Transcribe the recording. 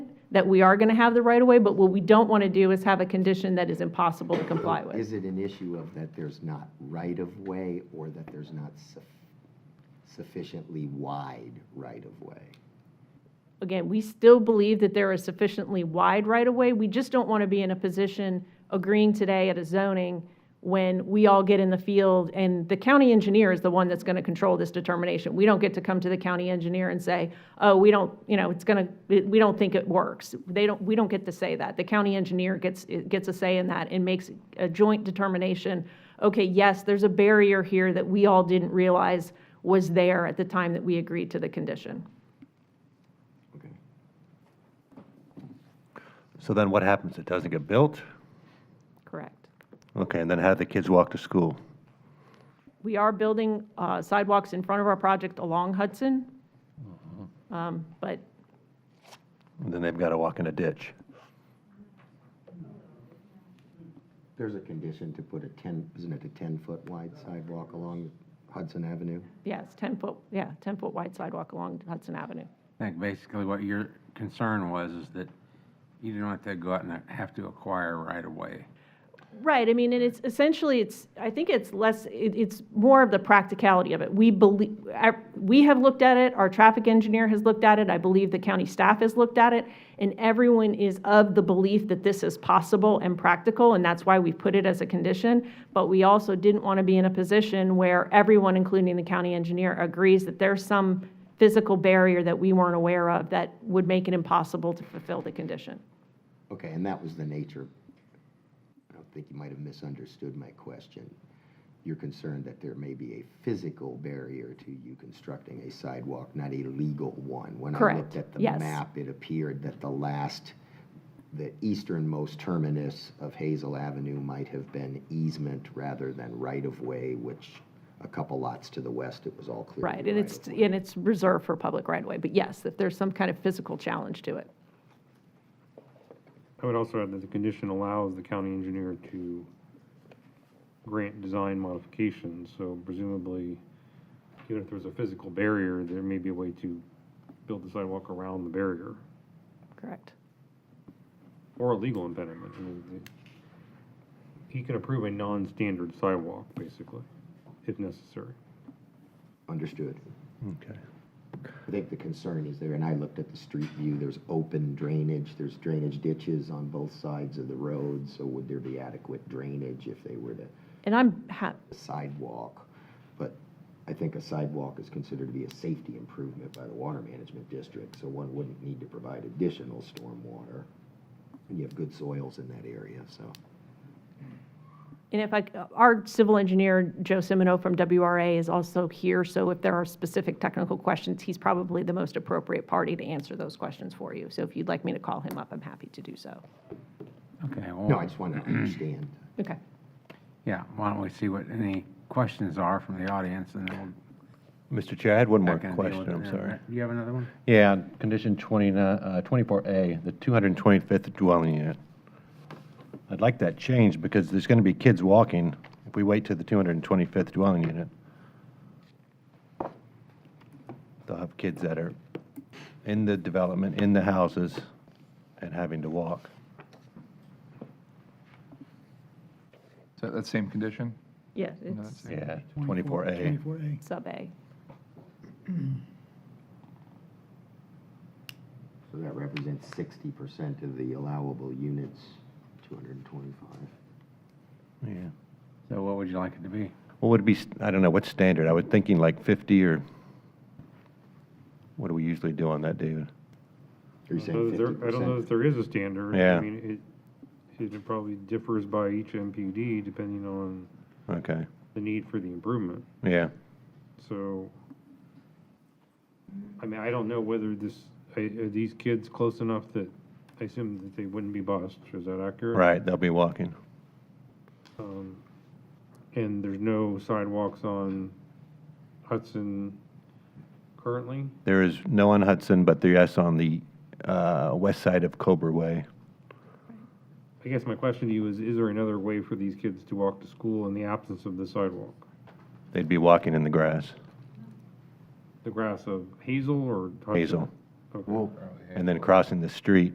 that we are going to have the right of way, but what we don't want to do is have a condition that is impossible to comply with. Is it an issue of that there's not right-of-way or that there's not suf- sufficiently wide right-of-way? Again, we still believe that there is sufficiently wide right of way. We just don't want to be in a position agreeing today at a zoning when we all get in the field and the county engineer is the one that's going to control this determination. We don't get to come to the county engineer and say, oh, we don't, you know, it's going to, we don't think it works. They don't, we don't get to say that. The county engineer gets, gets a say in that and makes a joint determination. Okay, yes, there's a barrier here that we all didn't realize was there at the time that we agreed to the condition. Okay. So then what happens? It doesn't get built? Correct. Okay, and then how do the kids walk to school? We are building uh, sidewalks in front of our project along Hudson, Um, but And then they've got to walk in a ditch. There's a condition to put a 10, isn't it a 10-foot wide sidewalk along Hudson Avenue? yes, 10-foot, yeah, 10-foot wide sidewalk along Hudson Avenue. I think basically what your concern was is that you don't have to go out and have to acquire right away. Right, I mean, and it's essentially, it's, I think it's less, it, it's more of the practicality of it. We believe, our- we have looked at it, our traffic engineer has looked at it, I believe the county staff has looked at it, and everyone is of the belief that this is possible and practical, and that's why we put it as a condition. But we also didn't want to be in a position where everyone, including the county engineer, agrees that there's some physical barrier that we weren't aware of that would make it impossible to fulfill the condition. Okay, and that was the nature. I don't think you might have misunderstood my question. You're concerned that there may be a physical barrier to you constructing a sidewalk, not a legal one. When I Correct, looked at the yes. map, it appeared that the last, the easternmost terminus of Hazel Avenue might have been easement rather than right-of-way, which a couple lots to the west, it was all clear. Right, and it's, right-of-way. and it's reserved for public right-of-way, but yes, if there's some kind of physical challenge to it. I would also add that the condition allows the county engineer to grant design modifications, so presumably, even if there's a physical barrier, there may be a way to build the sidewalk around the barrier, Correct. or a legal impediment. I mean, the- He can approve a non-standard sidewalk, basically, if necessary. Understood. Okay. I think the concern is there, and I looked at the street view, there's open drainage, there's drainage ditches on both sides of the road, so would there be adequate drainage if they were to And I'm, ha- sidewalk? But I think a sidewalk is considered to be a safety improvement by the water management district, so one wouldn't need to provide additional stormwater. And you have good soils in that area, so. and if I, c- our civil engineer, Joe Semino from WRA, is also here, so if there are specific technical questions, he's probably the most appropriate party to answer those questions for you. So if you'd like me to call him up, I'm happy to do so. Okay, No, I well, just wanted to understand. Okay. yeah, why don't we see what any questions are from the audience and then Mr. Chair, I had one we'll. more back and deal question, with I'm it. sorry. You have another one? Yeah, on condition 29 uh, 24A, the 225th dwelling unit. I'd like that changed because there's going to be kids walking if we wait to the 225th dwelling unit. They'll have kids that are in the development, in the houses, and having to walk. Is that that same condition? Yeah, No, it's that's- Yeah, 24A. Twenty-four A. sub A. So that represents sixty percent of the allowable units, two hundred and twenty-five. Yeah. So what would you like it to be? What would be, st- I don't know, what's standard? I was thinking like 50 or, what do we usually do on that, David? Are you I don't know saying fifty that there- I don't know percent? that there is a standard. Yeah. I mean, it, it probably differs by each MPD depending on Okay, the need for the improvement. yeah. So, I mean, I don't know whether this, are are these kids close enough that, I assume that they wouldn't be bused, is that accurate? Right, they'll be walking. Um, And there's no sidewalks on Hudson currently? There is no on Hudson, but there is on the uh, west side of Cobra Way. I guess my question to you is, is there another way for these kids to walk to school in the absence of the sidewalk? They'd be walking in the grass, The grass of Hazel or Hudson? Hazel, Okay. and then crossing the street